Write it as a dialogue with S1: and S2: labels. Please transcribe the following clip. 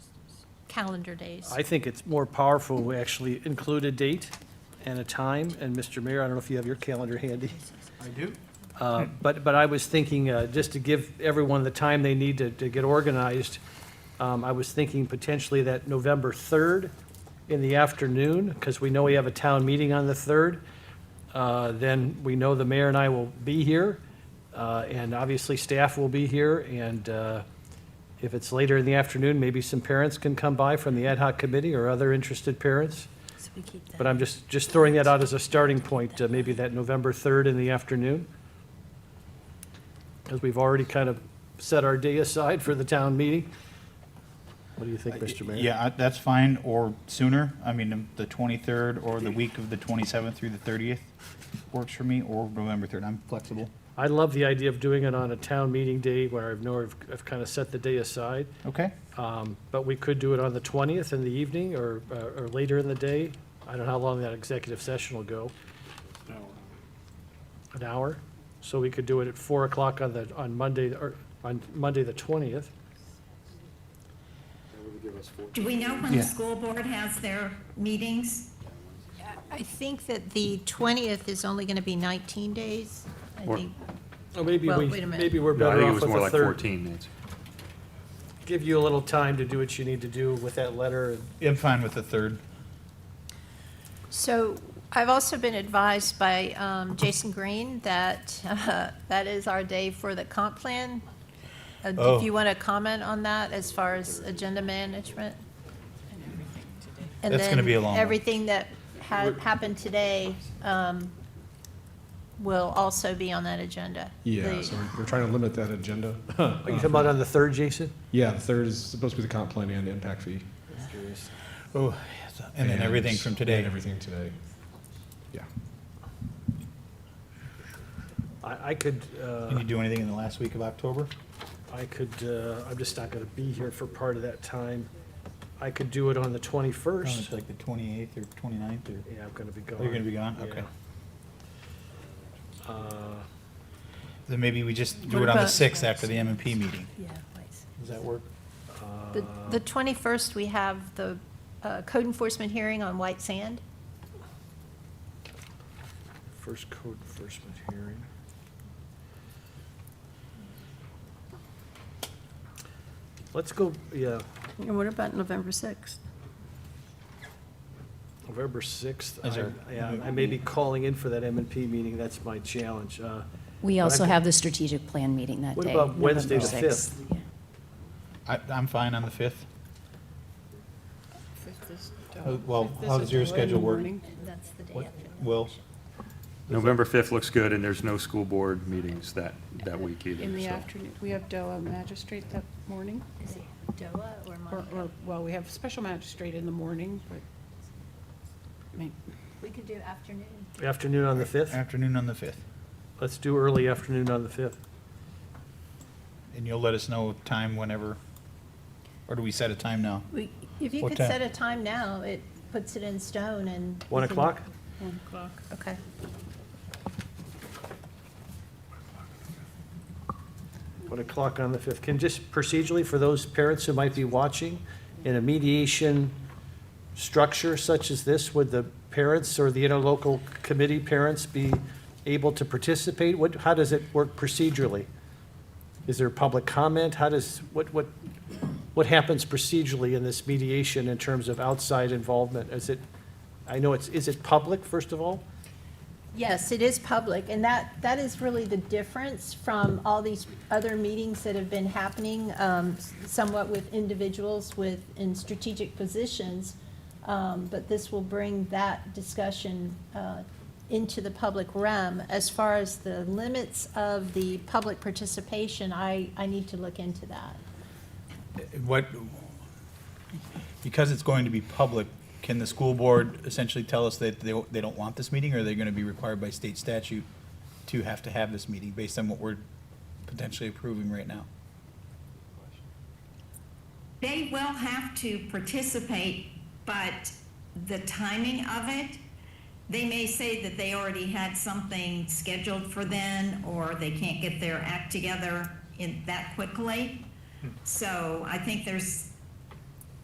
S1: calendar days.
S2: I think it's more powerful, we actually include a date and a time, and Mr. Mayor, I don't know if you have your calendar handy.
S3: I do.
S2: Uh, But, but I was thinking, uh, just to give everyone the time they need to, to get organized, um, I was thinking potentially that November 3rd in the afternoon, because we know we have a town meeting on the 3rd. Uh, Then we know the mayor and I will be here, uh, and obviously staff will be here. And uh, if it's later in the afternoon, maybe some parents can come by from the ad hoc committee or other interested parents.
S1: So we keep that.
S2: But I'm just, just throwing that out as a starting point, uh, maybe that November 3rd in the afternoon. Because we've already kind of set our day aside for the town meeting. What do you think, Mr. Mayor?
S4: Yeah, I- that's fine, or sooner. I mean, um, the 23rd or the week of the 27th through the 30th works for me, or November 3rd. I'm flexible.
S2: I love the idea of doing it on a town meeting day where I've know I've, I've kind of set the day aside.
S4: Okay?
S2: Um, But we could do it on the 20th in the evening or, uh, or later in the day. I don't know how long that executive session will go. An hour? So we could do it at 4 o'clock on the, on Monday, or on Monday, the 20th.
S5: Do we know when
S4: Yeah.
S5: the school board has their meetings?
S1: I think that the 20th is only going to be 19 days. I
S6: Or-
S1: think
S2: Well, maybe
S1: Well,
S2: we,
S1: wait a minute.
S2: maybe we're
S6: No, I
S2: better
S6: think it
S2: off
S6: was
S2: with
S6: more
S2: a
S6: like
S2: third.
S6: 14, Nancy.
S2: Give you a little time to do what you need to do with that letter. and-
S4: I'm fine with the 3rd.
S1: So I've also been advised by um, Jason Green that uh, that is our day for the comp plan. Uh, If you want to comment on that as far as agenda management? And
S4: That's gonna
S1: then
S4: be a long one.
S1: Everything that had happened today um, will also be on that agenda.
S7: Yeah,
S1: The-
S7: so we're- we're trying to limit that agenda. Uh,
S2: Are
S6: Uh-huh.
S2: you talking about on the third, Jason?
S7: Yeah, the third is supposed to be the comp plan and impact fee.
S4: Oh, And then everything from
S7: And
S4: today.
S7: everything today. Yeah.
S2: I, I could,
S4: Can
S2: uh,
S4: you do anything in the last week of October?
S2: I could, uh, I'm just not gonna be here for part of that time. I could do it on the
S4: Probably
S2: twenty-first.
S4: Oh, Like the 28th or 29th, or
S2: Yeah, I'm gonna be gone.
S4: Oh, you're gonna be gone? Okay.
S2: Uh,
S4: Then maybe we just do
S1: What
S4: it on the
S1: about-
S4: 6th after the M and P meeting.
S1: Yeah, please.
S4: Does that work?
S1: The
S2: uh,
S1: the 21st, we have the uh, code enforcement hearing on White Sand.
S2: First code enforcement hearing. Let's go, yeah,
S8: And what about November 6th?
S2: November 6th.
S4: Is there-
S2: I- yeah, I may be calling in for that M and P meeting, that's my challenge. Uh,
S9: We
S2: But I
S9: also
S2: can-
S9: have the strategic plan meeting that
S2: What
S9: day.
S2: about Wednesday, the
S9: November 6th.
S2: 5th?
S4: I, I'm fine on the 5th.
S1: Oh,
S4: Uh, Well, how does your schedule work?
S1: That's the day
S4: What-
S1: after.
S4: Will?
S6: November 5th looks good, and there's no school board meetings that, that week either.
S8: In the
S6: so.
S8: afternoon, we have DOA magistrate that morning,
S1: Is it DOA or
S8: or,
S1: Monica?
S8: or, well, we have special magistrate in the morning, but, I mean,
S1: We could do afternoon.
S2: Afternoon on the 5th?
S4: Afternoon on the 5th.
S2: Let's do early afternoon on the 5th.
S4: And you'll let us know time whenever, or do we set a time now?
S1: We, if you
S4: What
S1: could
S4: time?
S1: set a time now, it puts it in stone and.
S2: 1
S1: we can-
S2: o'clock?
S8: one o'clock.
S1: Okay.
S2: One o'clock on the 5th. Can just procedurally, for those parents who might be watching, in a mediation structure such as this, would the parents or the interlocal committee parents be able to participate? What, how does it work procedurally? Is there public comment? How does, what, what, what happens procedurally in this mediation in terms of outside involvement? Is it, I know it's, is it public, first of all?
S1: Yes, it is public, and that, that is really the difference from all these other meetings that have been happening, um, somewhat with individuals with, in strategic positions. Um, But this will bring that discussion uh, into the public realm. As far as the limits of the public participation, I, I need to look into that.
S4: What, because it's going to be public, can the school board essentially tell us that they, they don't want this meeting? Or are they gonna be required by state statute to have to have this meeting based on what we're potentially approving right now?
S5: They will have to participate, but the timing of it, they may say that they already had something scheduled for then, or they can't get their act together in, that quickly. So I think there's